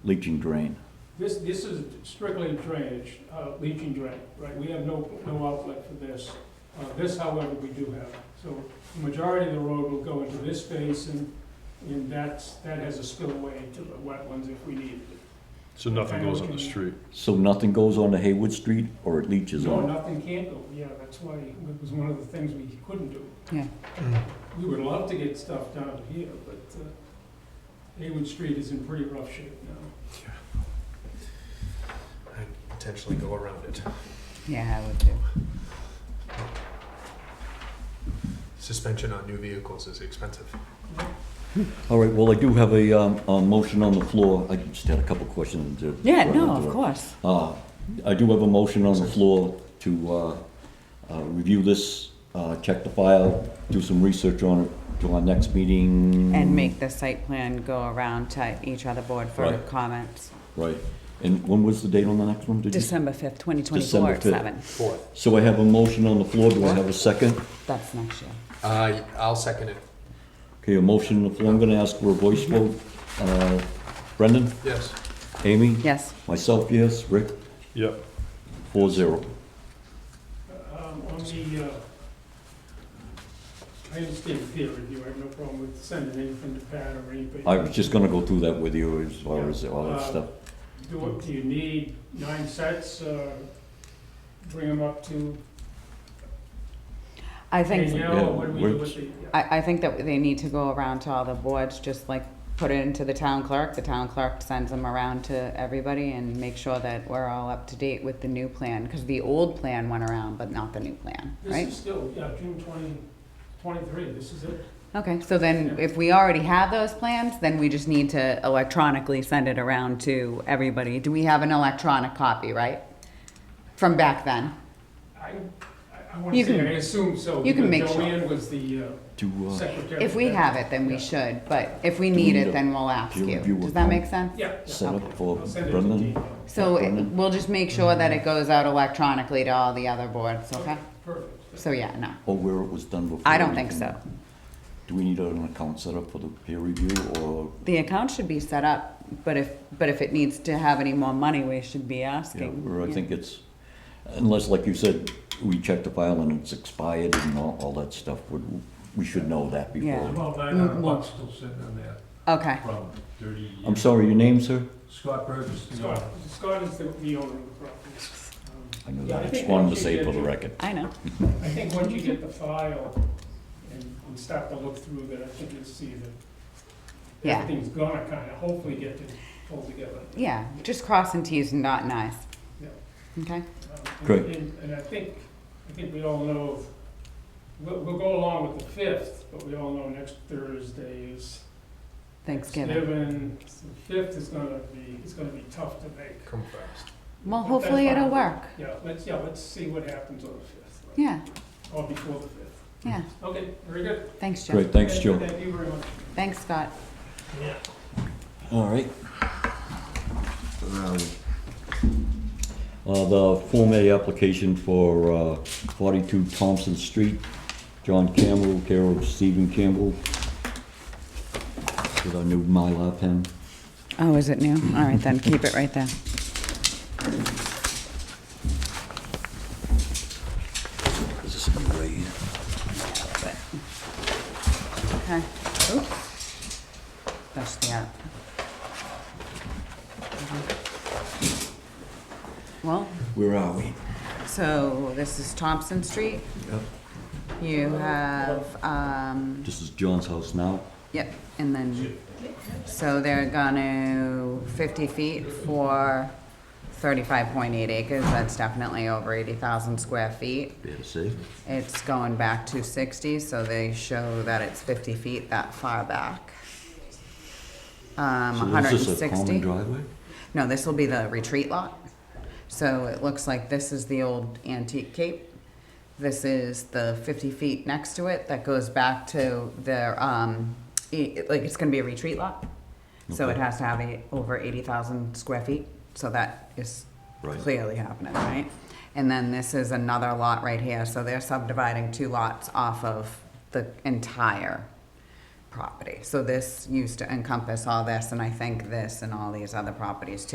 leaching drain. This, this is strictly drainage, uh, leaching drain, right? We have no, no outlet for this. Uh, This, however, we do have. So the majority of the road will go into this basin, and that's, that has a spillway to the wetlands if we need it. So nothing goes on the street. So nothing goes onto Haywood Street or it leaches No, on? nothing can go, yeah, that's why it was one of the things we couldn't do. Yeah. Mm. We would love to get stuff down to here, but uh, Haywood Street is in pretty rough shape now. I'd potentially go around it. Yeah, I would too. Suspension on new vehicles is expensive. All right, well, I do have a, um, a motion on the floor. I just had a couple questions. to- Yeah, no, of course. Uh, I do have a motion on the floor to, uh, uh, review this, uh, check the file, do some research on it till our next meeting. And make the site plan go around to each other board for Right. comments. Right, and when was the date on the next one? Did you- December fifth, twenty December twenty-four, at 5th. seven. Fourth. So I have a motion on the floor, do I have a second? That's next year. Uh, I'll second it. Okay, a motion on the floor, I'm gonna ask for a voice vote. Uh, Brendan, Yes. Amy? Yes, Myself, yes, Rick, Yep. four zero. Um, On the, uh, I understand peer review, I have no problem with sending anything to Pat or anybody. I was just gonna go through that with you as far as all that stuff. Do what, do you need nine sets, uh, bring them up to I think, Danielle, Yeah, or what do we do we're- with the? yeah. I, I think that they need to go around to all the boards, just like put it into the town clerk. The town clerk sends them around to everybody and make sure that we're all up to date with the new plan, because the old plan went around, but not the new plan, This right? is still, yeah, June twenty, twenty-three, this is it. Okay, so then Yeah. if we already have those plans, then we just need to electronically send it around to everybody. Do we have an electronic copy, right? From back then? I, I- I wanna You say, can- I assume so. you because can make sure. Joanne was the uh, Do, uh, secretary. If we have it, then we Yeah. should, but if we Do we need need a it, then we'll ask peer you. review Does of that them? make sense? Yeah. yeah. set up for I'll send it to Brendan? Danielle. So Okay. it- we'll just make sure that it goes out electronically to all the other boards, okay? Perfect. So yeah, no, Or where it was done before? I don't we think can- so. Do we need an account set up for the peer review or, The account should be set up, but if, but if it needs to have any more money, we should be yeah, asking. or I Yeah. think it's, unless, like you said, we check the file and it's expired and all, all that stuff, would, we should know that Yeah. before. About nine hundred bucks still sitting in there Okay, from thirty years. I'm sorry, your name, sir? Scott Burgess. Scott, Scott is the, the owner of the property. Um, I knew Yeah, that, I I just think wanted to once you say get for the your- record. I know. I think once you get the file and, and start to look through that, I think you'll see that Yeah. everything's gonna kinda hopefully get to pull together. Yeah, just crossing Ts and dotting Is. Yeah. Okay, Um, and- Great. And, and I think, I think we all know, we'll, we'll go along with the fifth, but we all know next Thursday is Thanksgiving. Thanksgiving. So The fifth is gonna be, it's gonna be tough to make. Come fast. Well, But hopefully that's it'll fine. work. Yeah, let's, yeah, let's see what happens on the fifth. Yeah, Or before the fifth. yeah. Okay, very good. Thanks, Joe. Great, thanks, Thank- Joe. Thank you very much. Thanks, Scott. Yeah. All right. Um, Uh, the Form A application for, uh, forty-two Thompson Street, John Campbell, care of Stephen Campbell. With our new Mylar pen. Oh, is it new? All right, then, keep it right there. Is this gonna be right here? Okay. Oops. That's the app. Mm-hmm. Well, Where are we? so this is Thompson Street. Yep. You have, um, This is John's house now. yep, and then, so they're gonna fifty feet for thirty-five point eight acres. That's definitely over eighty thousand square feet. Better safe. It's going back to sixty, so they show that it's fifty feet that far back. Um, So hundred and Is this a common sixty. driveway? No, this will be the retreat lot. So it looks like this is the old antique cape. This is the fifty feet next to it that goes back to their, um, e- like, it's gonna be a retreat lot. So it Okay. has to have a, over eighty thousand square feet, so that is Right. clearly happening, right? And then this is another lot right here, so they're subdividing two lots off of the entire property. So this used to encompass all this, and I think this and all these other properties too.